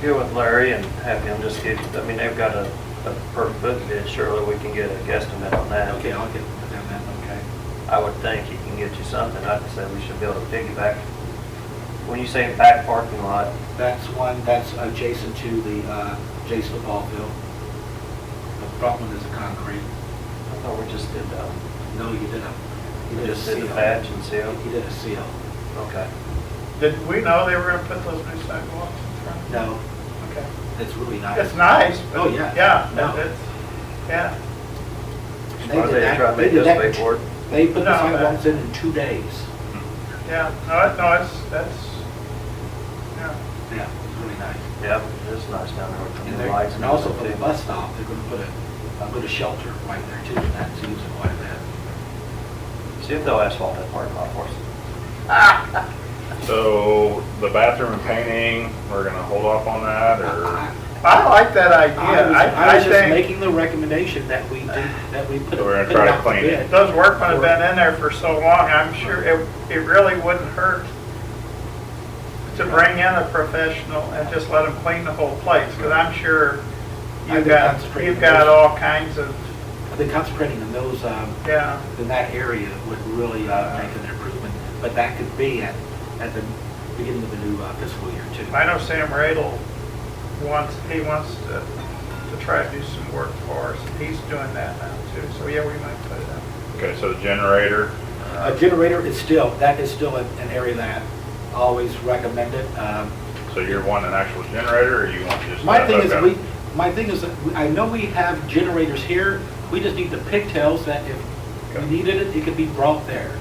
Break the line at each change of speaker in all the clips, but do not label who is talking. get with Larry and have him just get, I mean, they've got a, a per foot bid, surely we can get a guesstimate on that.
Okay, I'll get with them then.
Okay. I would think he can get you something, I'd say we should be able to piggyback. When you say back parking lot,
That's one that's adjacent to the uh, Jay's football field. The front one is concrete.
I thought we just did that.
No, you didn't.
We
You did a
just did the
seal.
patch and seal?
You did a seal.
Okay.
Did we know they were gonna put those new sidewalks in front?
No,
Okay.
it's really nice.
It's nice, but.
Oh, yeah.
Yeah,
No.
it's, yeah.
And
Why do
did
they
that-
try to make
did
us
that-
pay for it?
They put the
No, but-
sidewalks in in two days.
Yeah, no, it- no, it's, that's, yeah.
Yeah, it's really nice.
Yep, it's nice down there with
And
the
they're,
new lights.
and also for the
everything.
bus stop, they're gonna put a, uh, put a shelter right there too, and that's used quite a bit.
See if they'll asphalt that parking lot for us.
So the bathroom and painting, we're gonna hold off on that
Ah,
or?
I like that
I
idea.
was,
I,
I
I
was just
think
making the recommendation that we do, that we put. it-
We're gonna
put it
try to
out
clean it.
bid.
those workmen have been in there for so long, I'm sure it, it really wouldn't hurt to bring in a professional and just let them clean the whole place, because I'm sure
I
you've
think
got,
that's pretty
you've got
good.
all kinds of,
I think concentrating on those, um,
yeah.
in that area would really, uh, make an improvement, but that could be at, at the beginning of the new uh, fiscal year too.
I know Sam Radel wants, he wants to, to try to do some work for us, he's doing that now too, so yeah, we might put it up.
Okay, so the generator,
A generator is still, that is still an an area that I always recommended, um,
so you're wanting an actual generator or you want just?
My thing is,
Okay.
we, my thing is, that we- I know we have generators here, we just need the pigtails that if we
Okay.
needed it, it could be brought there.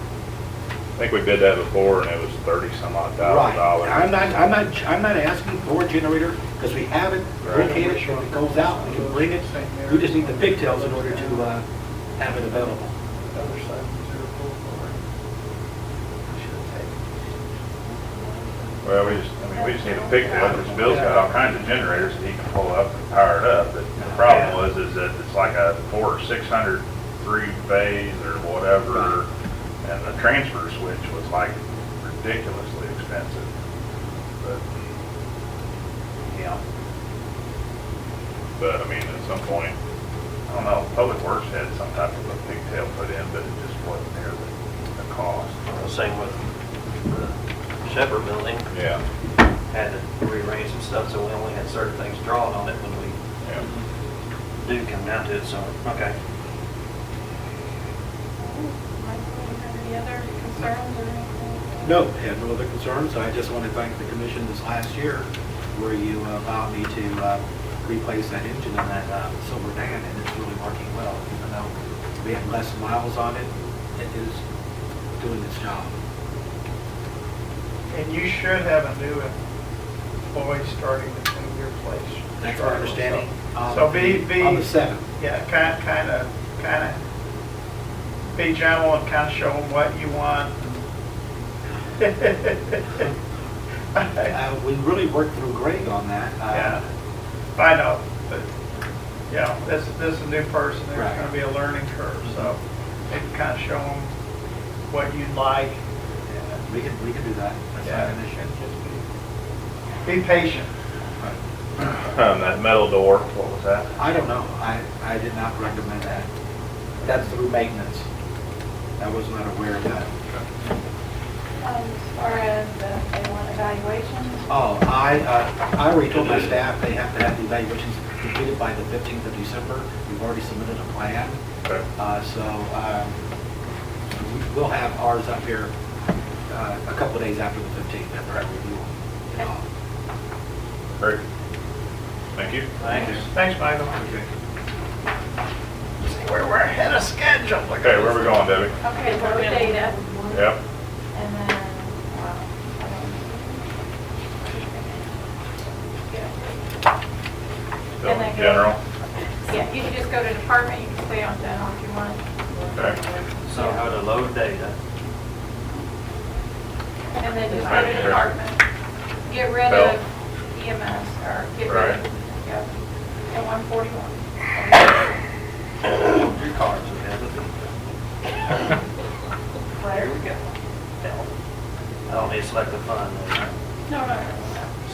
I think we did that before and it was thirty some odd
Right.
thousand dollars.
I'm not, I'm not, I'm not asking for a generator, because we have it,
Right.
located, if it goes out, we can bring it. We just need the pigtails in order to, uh, have it available.
Other side of zero pull forward. Should
Well, we just, I mean, we just need a pigtail because Bill's got all kinds of generators that he can pull up and power it up. But the problem was is that it's like a four or six hundred three phase or whatever. And the transfer switch was like ridiculously expensive. But
take. Yeah.
But I mean, at some point, I don't know, Public Works had some type of a pigtail put in, but it just wasn't there, the, the cost.
Same with the Shepherd Building,
Yeah,
had to rearrange some stuff, so we only had certain things drawn on it when we
yeah.
do come down to it, so, okay.
Michael, you have any other concerns or anything?
No, I have no other concerns, I just want to thank the commission this last year, where you uh, allowed me to, uh, replace that engine in that, uh, Silver Dan, and it's really working well, even though we have less miles on it, it is doing its job.
And you should have a new employee starting to clean your place.
That's my understanding. um,
So be, be.
On the seventh.
Yeah, kind, kind of, kind of, be gentle and kind of show them what you want.
Uh, we really worked through Greg on that. uh,
Yeah, I know, but, yeah, this, this is a new person, there's
Right.
gonna be a learning curve, so maybe kind of show them what you'd like.
yeah, We can, we can do that, that's not an issue.
Be patient.
Um, that metal door, what was that?
I don't know, I, I did not recommend that. That's through maintenance. I was not aware of that.
Um, As far as uh, if they want evaluations,
Oh, I, uh, I already told my staff they have to have the evaluations completed by the 15th of December. We've already submitted a plan,
Okay.
uh, so um, we- we'll have ours up here uh, a couple of days after the 15th, after I review them. and all.
Great. Thank you.
Thanks.
Thanks, Michael. We're, we're ahead of schedule. Look at
Okay, where
this.
we going, Debbie?
okay, vote data,
Yep.
and then, wow. I don't-
Bill,
And I go-
General.
Yeah, you can just go to department, you can stay on general if you want.
Okay.
So how to load data.
And then just go to department. Get rid
Bell.
of EMS, or get rid
Right.
of, yeah, at 141.
Your cards are there. Here we go. I don't need to select the fund.
No, no, no.